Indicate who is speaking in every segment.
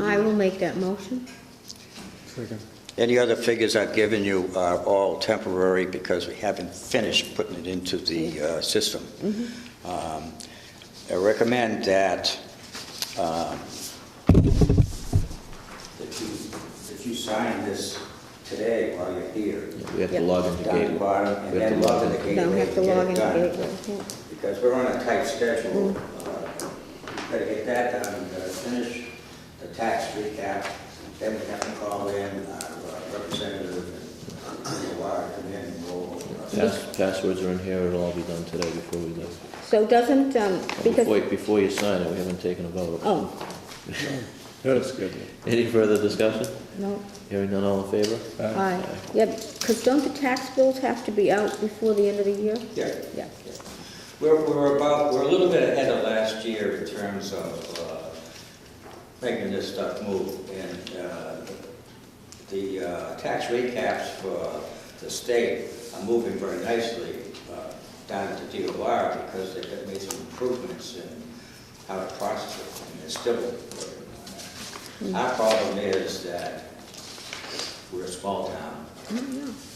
Speaker 1: I will make that motion.
Speaker 2: Second.
Speaker 3: Any other figures I've given you are all temporary because we haven't finished putting it into the uh, system.
Speaker 1: Mm-hmm.
Speaker 3: Um, I recommend that, um, that you, that you sign this today while you're here.
Speaker 4: We have to
Speaker 1: Yep.
Speaker 4: log in the
Speaker 3: Down at the
Speaker 4: gateway.
Speaker 3: bottom, and
Speaker 4: We have
Speaker 3: then
Speaker 4: to
Speaker 3: log in the
Speaker 4: log
Speaker 3: gateway.
Speaker 1: Don't have to
Speaker 3: get it
Speaker 1: log in
Speaker 3: done,
Speaker 1: the gateway. yeah.
Speaker 3: Because we're on a tight schedule. Uh, We've got to get that done, we've got to finish the tax recap, then we have to call in our representative and uh, the wire come in and go over.
Speaker 4: Pass- Passwords are in here, it'll all be done today before we leave.
Speaker 1: So doesn't, um,
Speaker 4: Before,
Speaker 1: because,
Speaker 4: before you sign it, we haven't taken a vote.
Speaker 1: oh,
Speaker 2: That's good.
Speaker 4: Any further discussion?
Speaker 1: no,
Speaker 4: Hearing none, all in favor?
Speaker 1: aye. Yeah, because don't the tax bills have to be out before the end of the year?
Speaker 3: Yeah.
Speaker 1: Yeah.
Speaker 3: We're, we're about, we're a little bit ahead of last year in terms of uh, making this stuff move. And uh, the uh, tax recaps for the state are moving very nicely uh, down to DOR because they've made some improvements in how to process it, and they're still working on that. Our problem is that we're a small town.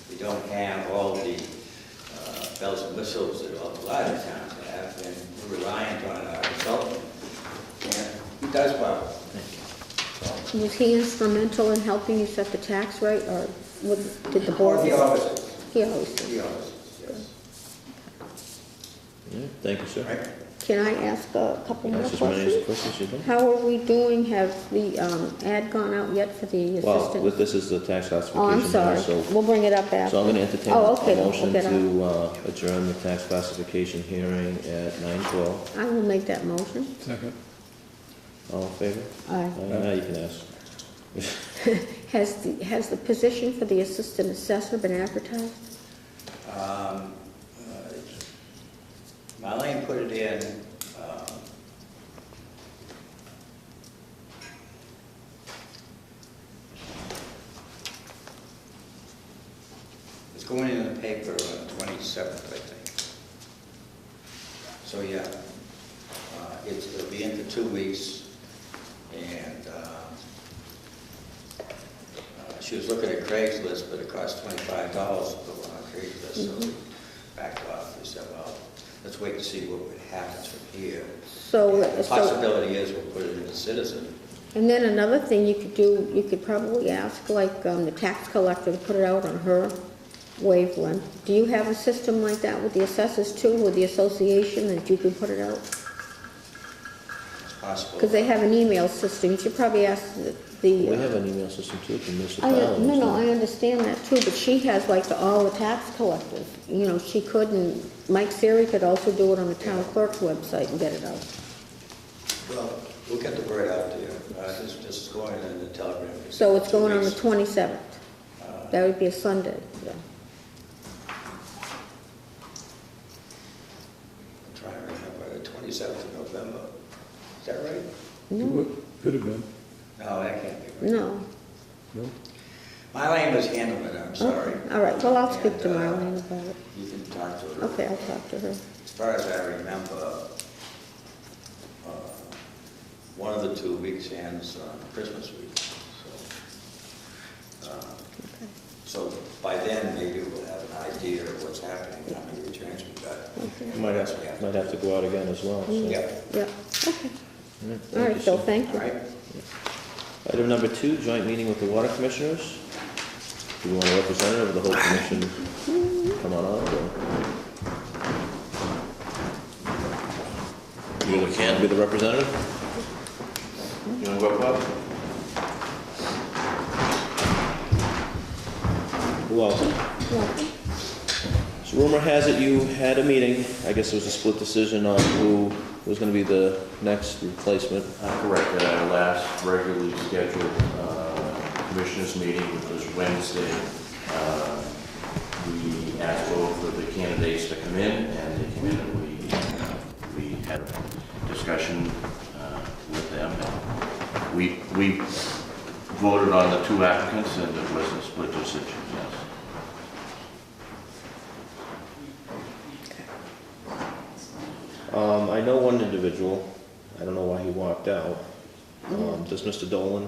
Speaker 3: We don't have all the uh, bells and whistles that all the larger towns have, and we're reliant on our consultant. And he does well.
Speaker 1: Was he instrumental in helping you set the tax rate, or what, did the board?
Speaker 3: The offices,
Speaker 1: He always
Speaker 3: the
Speaker 1: does.
Speaker 3: offices, yes.
Speaker 4: Yeah, Thank you,
Speaker 3: All
Speaker 4: sir.
Speaker 3: right?
Speaker 1: Can I ask a couple more
Speaker 4: Ask as many as
Speaker 1: questions?
Speaker 4: questions you want.
Speaker 1: How are we doing? Have the, um, ad gone out yet for the
Speaker 4: Well,
Speaker 1: assistant?
Speaker 4: with this is the tax
Speaker 1: Oh, I'm
Speaker 4: classification
Speaker 1: sorry.
Speaker 4: hearing, so
Speaker 1: We'll bring it up after.
Speaker 4: So I'm going to entertain
Speaker 1: Oh,
Speaker 4: a
Speaker 1: okay, then,
Speaker 4: motion
Speaker 1: okay, then.
Speaker 4: to uh, adjourn the tax classification hearing at 9:12.
Speaker 1: I will make that motion.
Speaker 2: Second.
Speaker 4: All in favor?
Speaker 1: Aye.
Speaker 4: Now you can ask.
Speaker 1: Has the, has the position for the assistant assessor been advertised?
Speaker 3: Um, uh, Marlene put it in. um, It's going in the paper on the 27th, I think. So, yeah, uh, it's, it'll be in for two weeks, and um, uh, She was looking at Craigslist, but it cost twenty-five dollars to put one on Craigslist, so we backed off. We said, well, let's wait and see what happens from here.
Speaker 1: So,
Speaker 3: The
Speaker 1: so,
Speaker 3: possibility is we'll put it in the citizen.
Speaker 1: and then another thing you could do, you could probably ask, like, um, the tax collector to put it out on her wavelength. Do you have a system like that with the assessors too, with the association, that you can put it out?
Speaker 3: It's possible.
Speaker 1: Because they have an email system, you should probably ask the- the.
Speaker 4: We
Speaker 1: uh,
Speaker 4: have an email system too, from
Speaker 1: I,
Speaker 4: municipalities.
Speaker 1: no, no, I understand that too, but she has like the, all the tax collectors. You know, she couldn't, Mike Siri could also do it on the town clerk's website and get it out.
Speaker 3: Well, we'll get the word out there. Uh, This this is going in the telegram.
Speaker 1: So it's going on the
Speaker 3: Two weeks.
Speaker 1: 27th. That would be a Sunday, yeah.
Speaker 3: I'm Trying to remember, the twenty-seventh of November. Is that right?
Speaker 1: No,
Speaker 2: Could have been.
Speaker 3: No, that can't be right.
Speaker 1: no.
Speaker 2: No?
Speaker 3: Marlene was handling it, I'm sorry.
Speaker 1: Okay, Oh, All right, well, I'll speak to
Speaker 3: And, uh,
Speaker 1: Marlene about it.
Speaker 3: You can talk to her.
Speaker 1: Okay, I'll talk to her.
Speaker 3: As far as I remember, uh, one of the two weeks ends on Christmas week, so. uh, So by then, maybe we'll have an idea of what's happening, how many returns we got.
Speaker 4: Might have, might have to go out again as well, so.
Speaker 3: Yeah,
Speaker 1: Yeah, okay.
Speaker 4: Yeah,
Speaker 1: All
Speaker 4: thank you,
Speaker 1: right, Bill,
Speaker 4: sir.
Speaker 1: thank
Speaker 3: all
Speaker 1: you.
Speaker 3: right.
Speaker 4: Item number two, joint meeting with the water commissioners. Do we want a representative of the whole commission? Come on up. or- You really can't be the representative? You wanna go up, Bob? Who else?
Speaker 1: Yeah.
Speaker 4: So rumor has it you had a meeting, I guess it was a split decision on who was gonna be the next replacement.
Speaker 5: Uh, Correct, at our last regularly scheduled uh, commissioners meeting, which was Wednesday, uh, we asked both of the candidates to come in, and they came in, and we, uh, we had a discussion uh, with them. and We, we voted on the two applicants, and it was a split decision, yes.
Speaker 4: Um, I know one individual, I don't know why he walked out. Um, does Mr. Dolan